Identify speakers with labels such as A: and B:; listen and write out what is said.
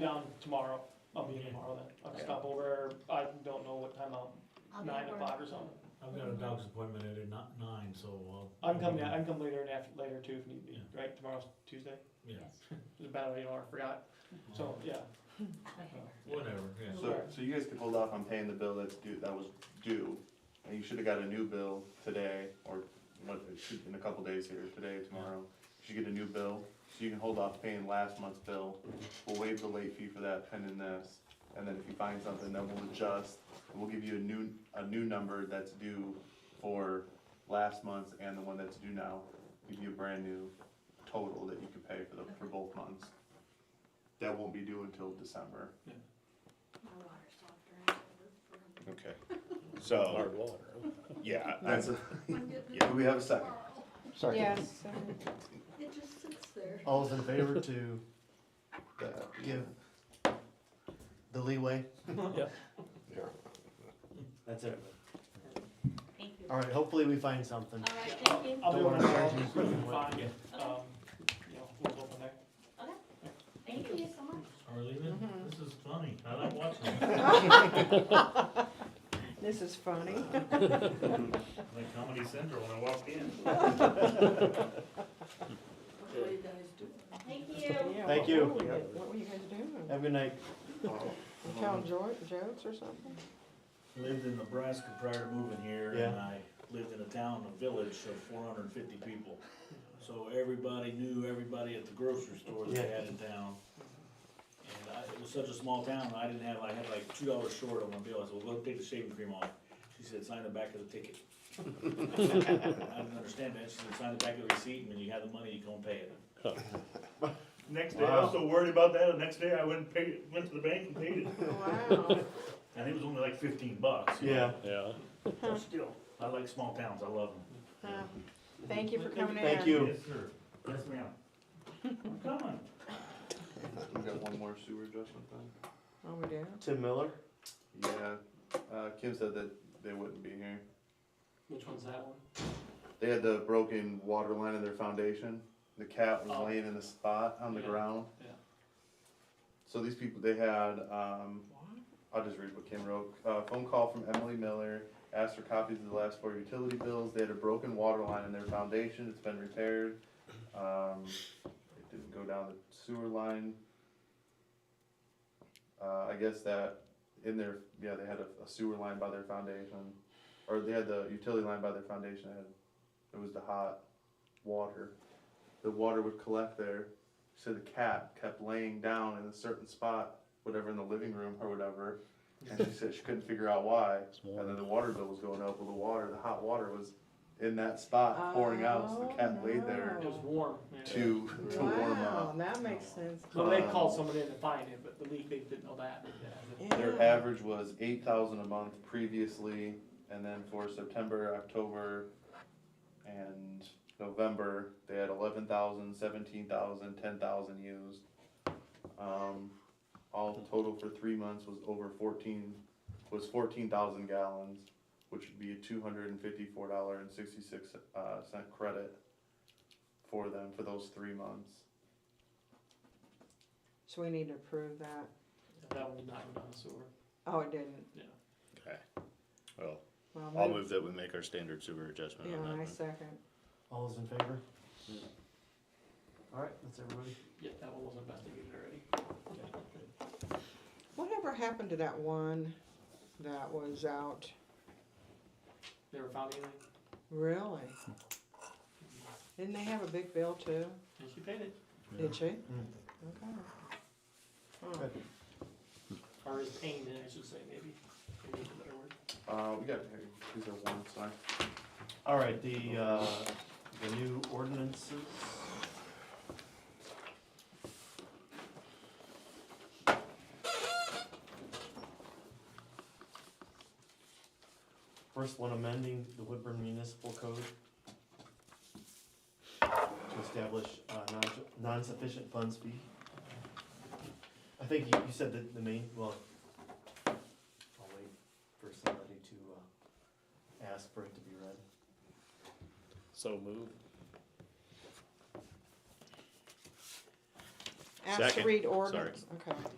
A: Down tomorrow, I'll be in tomorrow then, I'll
B: Okay.
A: stop over, I don't know what time I'll,
C: I'll be
A: nine
C: at
A: to
C: work.
A: five or something.
D: I've got a dog's appointment at ni- nine, so uh, I'll.
A: I can come down, I can come later and after, later too if need be,
D: Yeah.
A: right, tomorrow's Tuesday,
D: Yeah,
C: Yes.
A: it's about an hour, I forgot, so, yeah.
D: whatever, yeah.
B: So, so you guys could hold off on paying the bill that's due, that was due, and you should've got a new bill today, or what, it should- in a couple days here, today, tomorrow. You should get a new bill, so you can hold off paying last month's bill, we'll waive the late fee for that pending this. And then if you find something, then we'll adjust, and we'll give you a new, a new number that's due for last month's and the one that's due now. Give you a brand new total that you can pay for the, for both months. That won't be due until December.
C: My water's softer.
E: Okay, so, yeah,
B: That's
E: that's,
B: a,
C: I'm getting it
B: do we have a second?
C: tomorrow.
F: Yes,
C: It just sits there.
G: All's in favor to give the leeway? That's it.
C: Thank you.
G: Alright, hopefully we find something.
C: All right, thank you.
A: I'll be
G: Don't
A: on
G: worry,
A: tomorrow,
G: Sergeant.
A: quick and find it, um, you know, we'll go from there.
C: Thank you so much.
D: Are we leaving? This is funny, I like watching it.
F: This is funny.
D: Like Comedy Central when I walk in.
C: What are you guys doing? Thank you.
G: Thank you.
F: What were you guys doing?
G: Have a good night.
B: Oh,
E: Um,
F: You Telling jo- jokes or something?
H: Lived in Nebraska prior to moving here,
G: Yeah.
H: and I lived in a town, a village of four hundred and fifty people. So everybody knew everybody at the grocery store that they had in town. And I, it was such a small town, I didn't have, I had like two dollars short on my bill, I said, well, go take the shaving cream off. She said, sign the back of the ticket. I didn't understand that, she said, sign the back of the receipt, and when you have the money, you go and pay it.
D: Next day, I was so worried about that, the next day I went and paid, it, went to the bank and paid it,
F: Wow.
D: and it was only like fifteen bucks. you
G: Yeah.
D: know. But Still, I like small towns, I love them.
F: Huh. Um, Thank you for coming in.
G: Thank you.
D: Yes, sir. Yes, ma'am. I'm coming.
B: We got one more sewer adjustment then?
F: Oh, we do?
G: Tim Miller?
B: Yeah, uh, Kim said that they wouldn't be here.
A: Which one's that one?
B: They had the broken water line in their foundation, the cat was
A: Oh.
B: laying in a spot on the
A: Yeah,
B: ground.
A: yeah.
B: So these people, they had, um, I'll just read what Kim wrote, uh, phone call from Emily Miller, asked for copies of the last four utility bills, they had a broken water line in their foundation, it's been repaired. Um, it didn't go down the sewer line. Uh, I guess that in their, yeah, they had a- a sewer line by their foundation, or they had the utility line by their foundation, that had it was the hot water. The water would collect there. So the cat kept laying down in a certain spot, whatever in the living room or whatever. And she said she couldn't figure out why. And then the water bill was going up. Well, the water, the hot water was in that spot pouring out. So the cat
F: Oh,
B: laid there
A: It was warm, yeah.
B: to to warm
F: Wow,
B: up.
F: that makes sense.
A: Well, they called someone in to find it, but the leak, they didn't know that, yeah.
B: Their
F: Yeah.
B: average was eight thousand a month previously, and then for September, October, and November, they had eleven thousand, seventeen thousand, ten thousand used. Um, all total for three months was over fourteen, was fourteen thousand gallons, which would be a two hundred and fifty-four dollar and sixty-six, uh, cent credit for them for those three months.
F: So we need to approve that.
A: That one did not go down the sewer.
F: Oh, it didn't.
E: well,
F: Well,
E: I'll
F: move-
E: move that we make our standard sewer adjustment
F: Yeah,
E: on that
F: I
E: one.
F: second.
G: All's in favor? Alright, that's everybody.
A: Yeah, that one was investigated already.
F: Whatever happened to that one that was out?
A: Never found anything,
F: Really? Didn't they have a big bill too?
A: and she paid it,
F: Did she?
G: Mm.
F: Okay. Huh.
G: Good.
A: or is paying it, I should say, maybe, maybe is a better word.
B: Uh, we got, here, these are one sign.
G: Alright, the, uh, the new ordinances. First one amending the Woodburn Municipal Code to establish a non- non-sufficient funds fee. I think you, you said that the main, well, I'll wait for somebody to, uh, ask for it to be read.
E: So moved.
F: Ask to
E: Second.
F: read
E: Sorry.
F: ordinance, okay.